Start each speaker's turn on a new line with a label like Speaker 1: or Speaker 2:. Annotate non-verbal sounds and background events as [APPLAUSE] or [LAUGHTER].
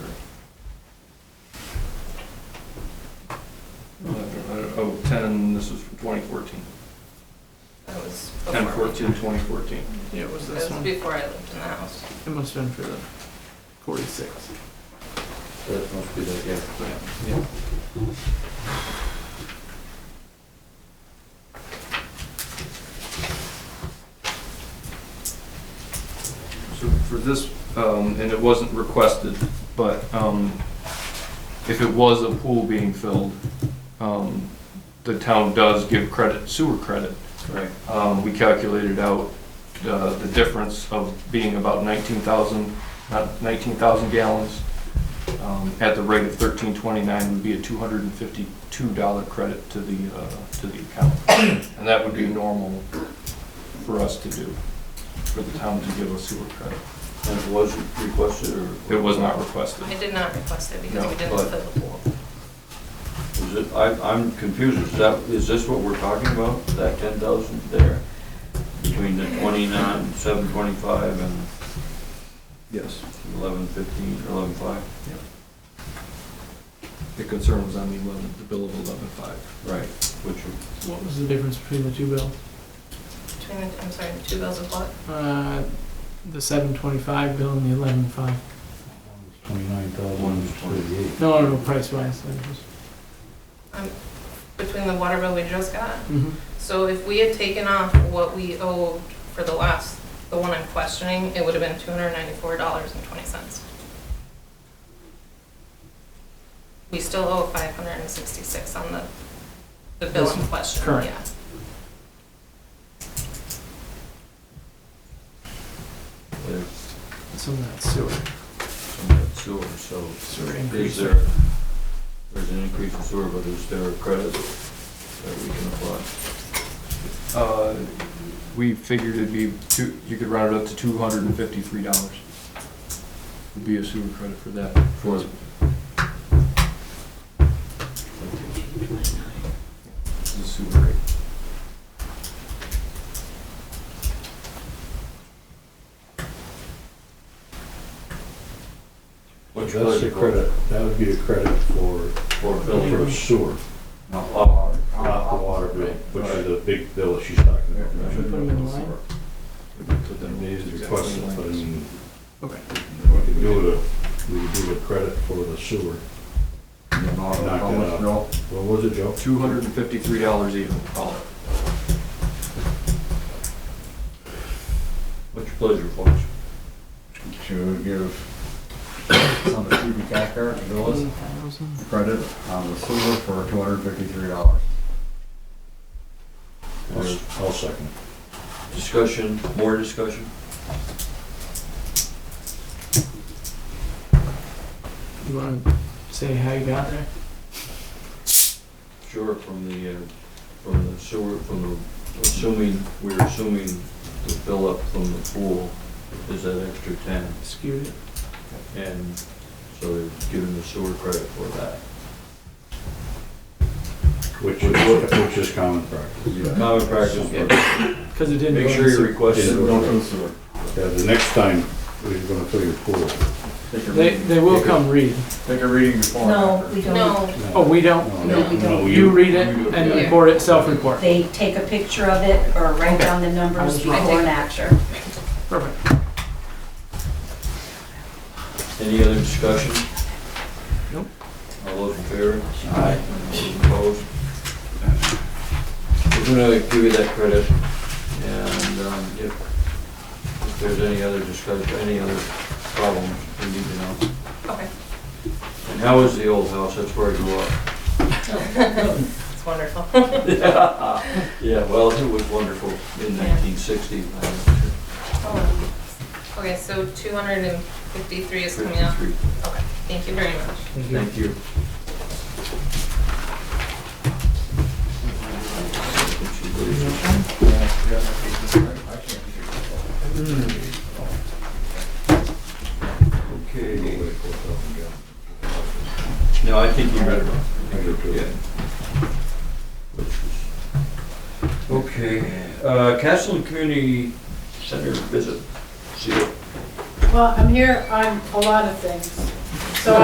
Speaker 1: Oh, ten, this was from twenty fourteen.
Speaker 2: That was before.
Speaker 1: Ten fourteen, twenty fourteen.
Speaker 3: Yeah, it was
Speaker 2: That
Speaker 3: this
Speaker 2: was
Speaker 3: one.
Speaker 2: before I lived in the house.
Speaker 3: It must have been for the forty-six.
Speaker 4: That must be that, yeah.
Speaker 3: Yeah.
Speaker 1: So for this, um, and it wasn't requested, but, um, if it was a pool being filled, um, the town does give credit, sewer credit.
Speaker 4: Right.
Speaker 1: Um, we calculated out, uh, the difference of being about nineteen thousand, not nineteen thousand gallons. Um, at the rate of thirteen twenty-nine would be a two hundred and fifty-two dollar credit to the, uh, to the account. And that would be normal for us to do, for the town to give us sewer credit.
Speaker 4: And it was requested or?
Speaker 1: It was not requested.
Speaker 2: I did not request it because
Speaker 1: No,
Speaker 2: we didn't
Speaker 4: but-
Speaker 2: fill the pool.
Speaker 4: Is it, I, I'm confused, is that, is this what we're talking about, that ten thousand there? Between the twenty-nine, seven twenty-five and
Speaker 1: Yes.
Speaker 4: eleven fifteen, or eleven five?
Speaker 1: The concern was on the eleven, the bill of eleven-five.
Speaker 4: Right. Which, are-
Speaker 3: What was the difference between the two bills?
Speaker 2: Between the, I'm sorry, the two bills of what?
Speaker 3: Uh, the seven twenty-five bill and the eleven five.
Speaker 5: Twenty-nine thousand, thirty-eight.
Speaker 3: No, no, no, price wise, that was.
Speaker 2: Between the water bill we just got?
Speaker 3: Mhm.
Speaker 2: So if we had taken off what we owed for the last, the one I'm questioning, it would have been two hundred ninety-four dollars and twenty cents. We still owe five hundred and sixty-six on the, the bill in
Speaker 3: This-
Speaker 2: question,
Speaker 3: correct.
Speaker 2: yeah.
Speaker 4: there's
Speaker 3: Some of that sewer,
Speaker 4: some of that sewer, so
Speaker 3: sewer
Speaker 4: is
Speaker 3: increase.
Speaker 4: there, there's an increase in sewer, but is there a credit that we can apply?
Speaker 1: Uh, we figured it'd be two, you could round it up to two hundred and fifty-three dollars. Would be a sewer credit for that. For. The sewer rate.
Speaker 4: Which
Speaker 5: That's
Speaker 4: was
Speaker 5: the credit, that would be the credit for,
Speaker 4: For
Speaker 5: for
Speaker 4: filters,
Speaker 5: sewer,
Speaker 4: not law.
Speaker 5: not the water bill, which is the big bill that she's talking about.
Speaker 3: Should we put them in line?
Speaker 5: And they requested, but I mean,
Speaker 3: Okay.
Speaker 5: we could do the, we could do the credit for the sewer. Knock it out.
Speaker 4: No,
Speaker 5: What was it, Joe?
Speaker 1: Two hundred and fifty-three dollars even, call it.
Speaker 4: What's your pleasure, folks?
Speaker 6: to give on the cubic acre villas
Speaker 3: 10,000.
Speaker 6: credit on the sewer for two hundred fifty-three dollars.
Speaker 5: I'll s- I'll second.
Speaker 4: Discussion, more discussion?
Speaker 3: You wanna say how you got there?
Speaker 4: Sure, from the, uh, from the sewer, from the, assuming, we're assuming the fill up from the pool is that extra ten,
Speaker 3: Skewed it.
Speaker 4: and so they're giving the sewer credit for that.
Speaker 5: Which, is- which is common practice.
Speaker 6: Yeah.
Speaker 4: Common practice, but
Speaker 3: Cause it didn't.
Speaker 4: make
Speaker 3: go in
Speaker 4: sure you
Speaker 3: sewer.
Speaker 4: request
Speaker 5: Didn't
Speaker 4: it.
Speaker 5: go
Speaker 6: Go to the sewer.
Speaker 5: Yeah, the next time, we're gonna fill your pool.
Speaker 6: Take a
Speaker 3: They,
Speaker 6: reading.
Speaker 3: they will
Speaker 6: Take a-
Speaker 3: come read.
Speaker 6: Take a reading before. and
Speaker 7: No,
Speaker 6: after.
Speaker 7: we don't.
Speaker 2: No,
Speaker 3: Oh, we don't,
Speaker 7: No, we don't.
Speaker 3: you read it
Speaker 4: you-
Speaker 3: and
Speaker 4: yeah.
Speaker 3: report it, self-report.
Speaker 7: They take a picture of it or write down the numbers
Speaker 3: Okay.
Speaker 7: before and after.
Speaker 3: Perfect.
Speaker 4: Any other discussion?
Speaker 3: Nope.
Speaker 4: All those in favor?
Speaker 3: Aye.
Speaker 4: Opposed? We're gonna give you that credit, and um, if, if there's any other discussion, any other problems, we need to know.
Speaker 2: okay,
Speaker 4: And how is the old house? That's where I grew up.
Speaker 2: [LAUGHS] it's wonderful. [LAUGHS]
Speaker 4: Yeah, well, it was wonderful in
Speaker 2: Yeah.
Speaker 4: nineteen sixty.
Speaker 2: Um, Okay, so two hundred and fifty-three is coming up. Okay, thank you very much.
Speaker 4: Thank you. Okay. No, I think you read it wrong. Yeah. Okay, uh, Castle and Community Center visit. See you.
Speaker 8: Well, I'm here on a lot of things.